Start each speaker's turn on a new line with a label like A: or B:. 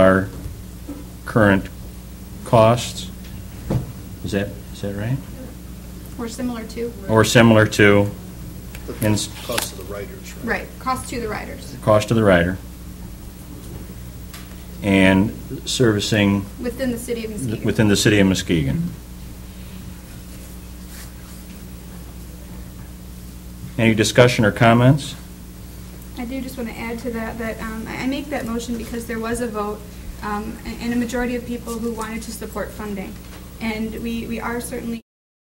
A: current costs. Is that, is that right?
B: Or similar to?
A: Or similar to
C: The
A: And s-
C: cost of the writers, right?
B: Right, cost to the riders,
A: cost of the rider? And servicing
B: within the city of Muskegon.
A: within the city of Muskegon. Any discussion or comments?
B: I do just want to add to that, that um, I I make that motion because there was a vote um, and and a majority of people who wanted to support funding. And we we are certainly